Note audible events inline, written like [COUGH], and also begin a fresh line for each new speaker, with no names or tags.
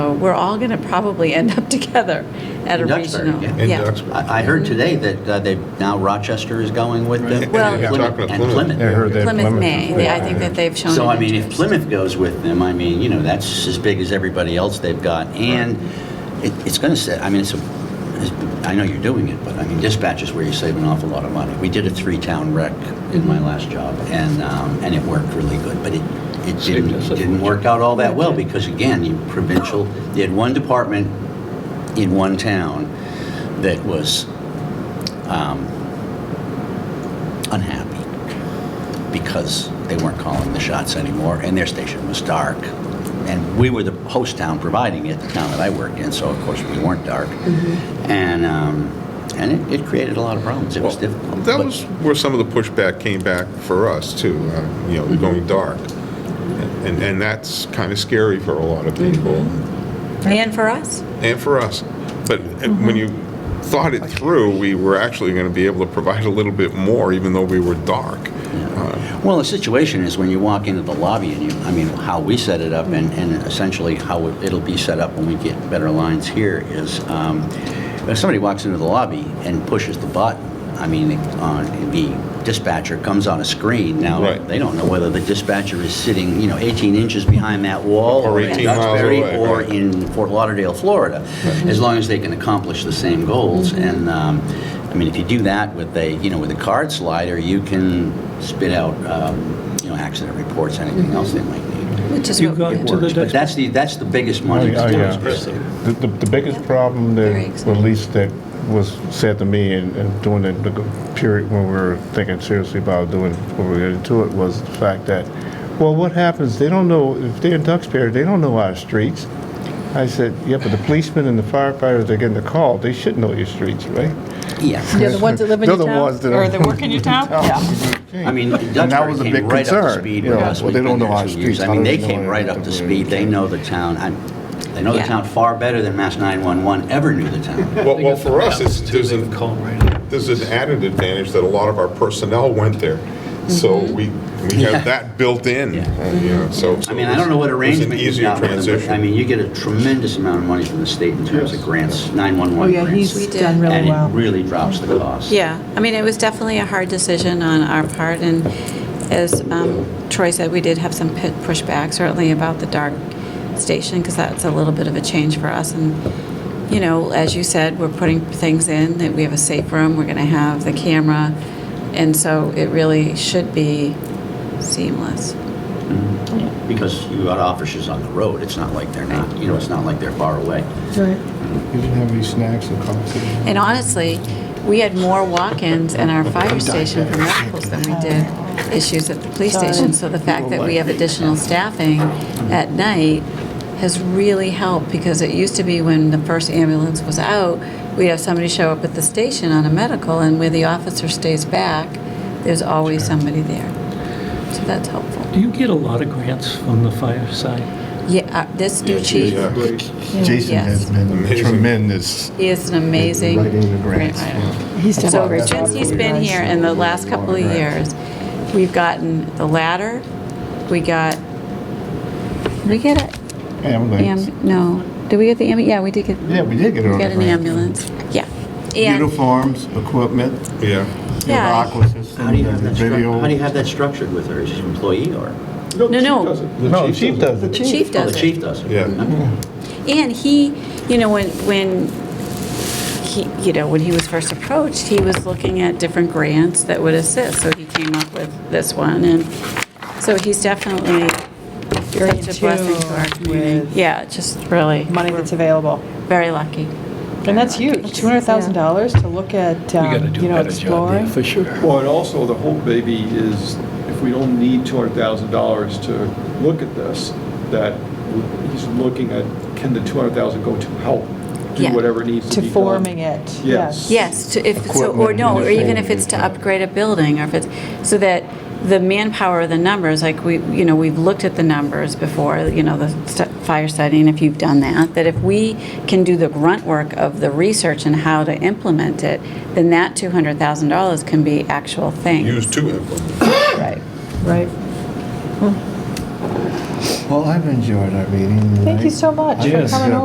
So we're all going to probably end up [LAUGHS] together at a
In Duxbury,
regional.
yeah.
In
yeah.
Duxbury.
I I heard today that uh, they, now Rochester is going with them.
And
Well-
you're talking to
And Plymouth.
Yeah, I heard that
Plymouth may, They- I think that they've shown.
So,
an
I mean, if
interest.
Plymouth goes with them, I mean, you know, that's as big as everybody else they've got. And it, it's going to say, I mean, it's a, it's- I know you're doing it, but I mean, dispatch is where you save an awful lot of money. We did a three-town rec in my last job, and, um, and it worked really good. But it, it
Saved
didn't,
us a
didn't work out all that well, because again, you provincial, you had one department in one town that was um, unhappy because they weren't calling the shots anymore, and their station was dark. And we were the host town providing it, the town that I worked in, so of course we weren't dark. And, um, and it, it created a lot of problems. It was difficult.
That
but-
was where some of the pushback came back for us too, uh, you know,
Mm-hmm.
going dark. And, and that's kind of scary for a lot of
Mm-hmm.
people
And for us.
and for us. But uh,
Mm-hmm.
when you thought it through, we were actually going to be able to provide a little bit more even though we were dark. Uh,
Well, the situation is when you walk into the lobby and you, I mean, how we set it up and, and essentially how it'll be set up when we get better lines here is, um, if somebody walks into the lobby and pushes the button, I mean, uh, the dispatcher comes on a screen. Now,
Right.
they don't know whether the dispatcher is sitting, you know, 18 inches behind that wall.
Or
in
18 miles
Duxbury
away,
Or
right.
in Fort Lauderdale, Florida, as long as they can accomplish the same goals.
Mm-hmm.
And, um, I mean, if you do that with a, you know, with a card slider, you can spit out, um, you know, accident reports, anything else they might need.
Which is
You
what
got
we
to
It
do.
the
works, but
next-
that's the, that's the biggest money.
Oh,
that's
yeah.
missing.
The, the, the biggest problem that,
Very
well, at least that was said to me and, and during the, the period when we were thinking seriously about doing, before we get into it, was the fact that, well, what happens, they don't know, if they're in Duxbury, they don't know our streets. I said, yeah, but the policemen and the firefighters that are getting the call, they should know your streets, right?
Yeah.
They're the ones that live in
They're
your
the
town?
ones that are-
Or that work
[LAUGHS]
in your town? Yeah.
I mean,
And that was a
Duxbury
big
came right up to
concern.
speed
you
with
know,
us.
well,
We've
They don't
been
know
there
our
two years.
streets.
I
How
mean,
do
they
know
came right
anything
up to
about
speed. They know the town. I'm- They know the
Yeah.
town far better than Mass 911 ever knew the
[LAUGHS]
town.
Well, well, for us, it's, there's an
Call right up.
there's an added advantage that a lot of our personnel went there. So we, we
Mm-hmm. Yeah.
have that built in,
Yeah.
uh, you know, so. so
I mean, I
it was-
don't know what
it was an
arrangement you've
easier
got with them, but, I
transition.
mean, you get a tremendous amount of money from the state in terms of grants, 911
Oh, yeah,
grants.
he's done really well.
And it really drops the cost.
Yeah, I mean, it was definitely a hard decision on our part, and as um, Troy said, we did have some pit- pushback, certainly about the dark station, because that's a little bit of a change for us, and, you know, as you said, we're putting things in, that we have a safe room, we're going to have the camera, and so it really should be seamless.
Because you got officers on the road, it's not like they're not, you know, it's not like they're far away.
You didn't have any snacks or coffee?
And honestly, we had more walk-ins in our fire station for medicals than we did issues at the police station. So the fact that we have additional staffing at night has really helped because it used to be when the first ambulance was out, we'd have somebody show up at the station on a medical and where the officer stays back, there's always somebody there. So that's helpful.
Do you get a lot of grants from the fire side?
Yeah, uh, this new chief,
Jason
Yes.
has been
Amazing.
tremendous.
he is an amazing
Writing the
grant
grants,
writer.
He's done a
So
great job.
since he's been here in the last couple of years, we've gotten the ladder, we got, we get a,
Ambulance.
am- no, did we get the, ambu- yeah, we did get, we
Yeah, we did get it on
got
the
an
grant.
ambulance, yeah. And
Uniforms, equipment,
Yeah.
your
Yeah.
aqua
How do
system,
you have
the
that, stru- how do you
video.
have that structured with her, is she an employee or?
No, the chief no. does it.
No, the chief does
the chief
Oh, the
does it.
chief does it?
Yeah.
And he, you know, when, when he, you know, when he was first approached, he was looking at different grants that would assist, so he came up with this one, and so he's definitely
Very in
such a blessing to our
tune
community.
with
Yeah, just really,
Money that's available.
very lucky.
And that's huge, $200,000 to look at,
We gotta
um,
do
you
a
know,
better job there,
exploring.
for sure.
Well, and also, the hope maybe is if we don't need $200,000 to look at this, that he's looking at, can the 200,000 go to help do
Yeah.
whatever needs to
To
be done?
forming it, yes.
Yes.
Yes, to- if, so, or
Equipment,
no, or even
uniform,
if it's to
yeah.
upgrade a building, or if it's, so that the manpower, the numbers, like we, you know, we've looked at the numbers before, you know, the st- fire studying, if you've done that, that if we can do the grunt work of the research and how to implement it, then that $200,000 can be actual thing.
Use two implements.
Right, right.
Well, I've enjoyed our meeting.
Thank you
tonight.
so much for
Yes.
coming over.